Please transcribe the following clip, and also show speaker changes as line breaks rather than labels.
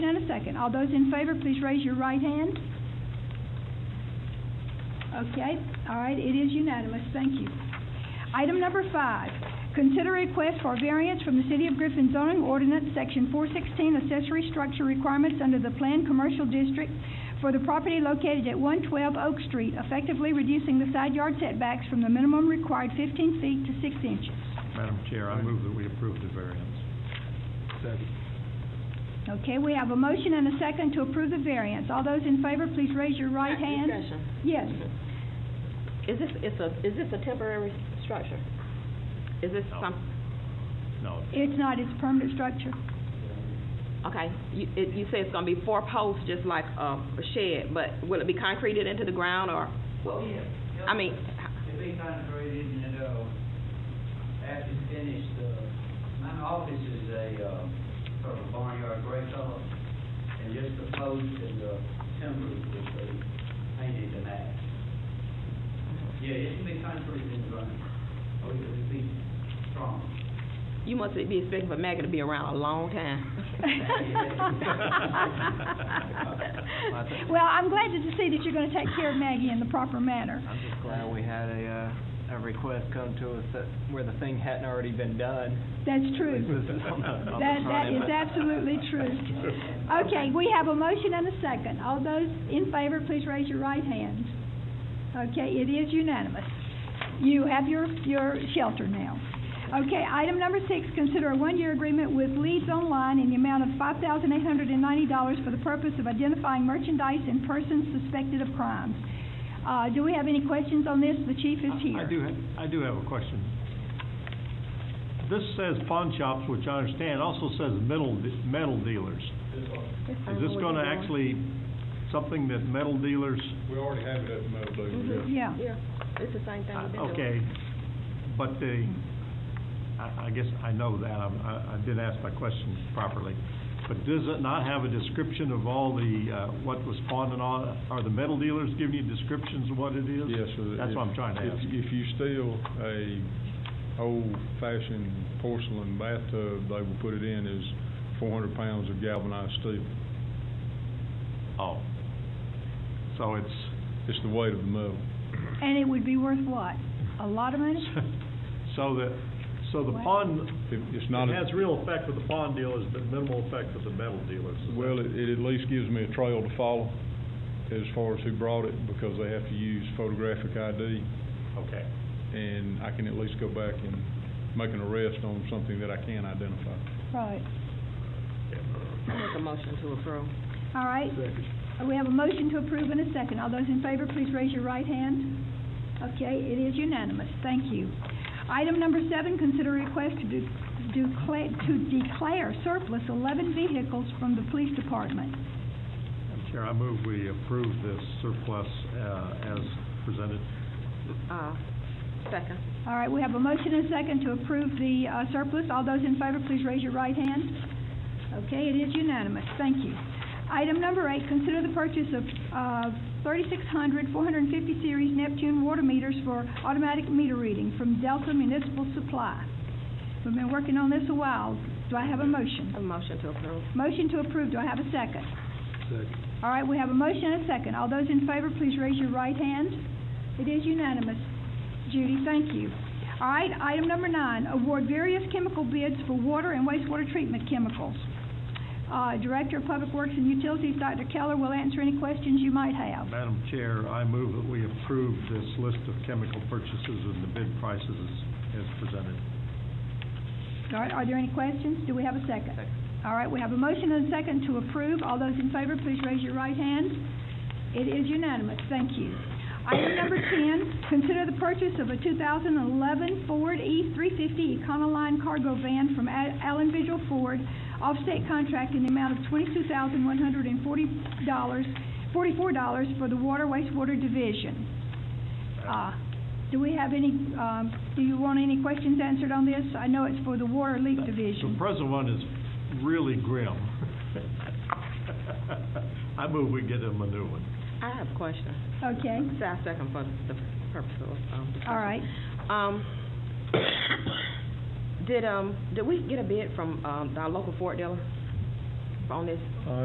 second. All those in favor, please raise your right hand. Okay, all right, it is unanimous, thank you. Item number five, consider request for variance from the City of Griffin zoning ordinance, Section 416, accessory structure requirements under the Planned Commercial District for the property located at 112 Oak Street, effectively reducing the side yard setbacks from the minimum required 15 feet to 6 inches.
Madam Chair, I move that we approve the variance.
Okay, we have a motion and a second to approve the variance. All those in favor, please raise your right hand.
Discussion.
Yes,
Is this, it's a, is this a temporary structure? Is this
No.
some,
No,
it's not, it's permanent structure.
okay, you, it, you say it's gonna be four posts, just like, um, a shed, but will it be concreted into the ground, or,
Well, yeah.
I mean,
It'll be concrete and it, uh, after it's finished, uh, my office is a, uh, sort of barnyard break off. And just the post and the timber will be painted to match. Yeah, it can be concrete and ground. Oh, it'll be strong.
you must be expecting for Maggie to be around a long time.
Well, I'm glad to see that you're gonna take care of Maggie in the proper manner.
I'm just glad we had a, uh, a request come to us that, where the thing hadn't already been done.
That's
At least
true.
this is on the- on the
That, that
front
is
end.
absolutely true. Okay, we have a motion and a second. All those in favor, please raise your right hand. Okay, it is unanimous. You have your, your shelter now. Okay, item number six, consider a one-year agreement with Leads Online in the amount of five thousand eight hundred and ninety dollars for the purpose of identifying merchandise and persons suspected of crimes. Uh, do we have any questions on this? The chief is here.
I I do, ha- I do have a question. This says pawn shops, which I understand, also says metal, de- metal dealers. Is this gonna actually, something that metal dealers,
We already have it at the metal building.
Yeah.
Yeah, it's the same thing we've been doing.
okay, but the, I, I guess I know that, I'm- I, I did ask my question properly. But does it not have a description of all the, uh, what was pawned and all? Are the metal dealers giving you descriptions of what it is?
Yes, sir.
That's what I'm trying to
If-
ask.
If you steal a old-fashioned porcelain bathtub, they will put it in as four hundred pounds of galvanized steel.
Oh. So it's,
It's the weight of the metal.
And it would be worth what? A lot of money?
So the, so the pawn,
It- It's
it
not, a-
has real effect with the pawn dealers, but minimal effect with the metal dealers. Is that-
well, it it at least gives me a trail to follow as far as who brought it, because they have to use photographic ID,
Okay,
and I can at least go back and make an arrest on something that I can identify.
Right.
I make a motion to approve.
All right. Uh, We have a motion to approve and a second. All those in favor, please raise your right hand. Okay, it is unanimous. Thank you. Item number seven, consider request to de- declare, to declare surplus eleven vehicles from the police department.
Madam Chair, I move we approve this surplus, uh, as presented.
Uh, second.
All right, we have a motion and a second to approve the uh, surplus. All those in favor, please raise your right hand. Okay, it is unanimous. Thank you. Item number eight, consider the purchase of uh, 3,600 450 series Neptune water meters for automatic meter reading from Delta Municipal Supply. We've been working on this a while. Do I have a motion?
A motion to approve.
Motion to approve. Do I have a second? All right, we have a motion and a second. All those in favor, please raise your right hand. It is unanimous. Judy, thank you. All right, item number nine, award various chemical bids for water and wastewater treatment chemicals. Uh, Director of Public Works and Utilities, Dr. Keller, will answer any questions you might have.
Madam Chair, I move that we approve this list of chemical purchases and the bid prices as, as presented.
All right, are there any questions? Do we have a second? All right, we have a motion and a second to approve. All those in favor, please raise your right hand. It is unanimous, thank you. Item number 10, consider the purchase of a 2011 Ford E350 Econoline cargo van from A- Allen Vigil Ford, off-state contract in the amount of $22,140, $44 for the Water Wastewater Division. Uh, Do we have any, um, do you want any questions answered on this? I know it's for the Water Leak Division.
The present one is really grim. I move we get him a new one.
I have a question.
Okay,
Say I second for the purpose of, um, discussion.
all right.
Um, did, um, did we get a bid from, um, our local Ford dealer on this?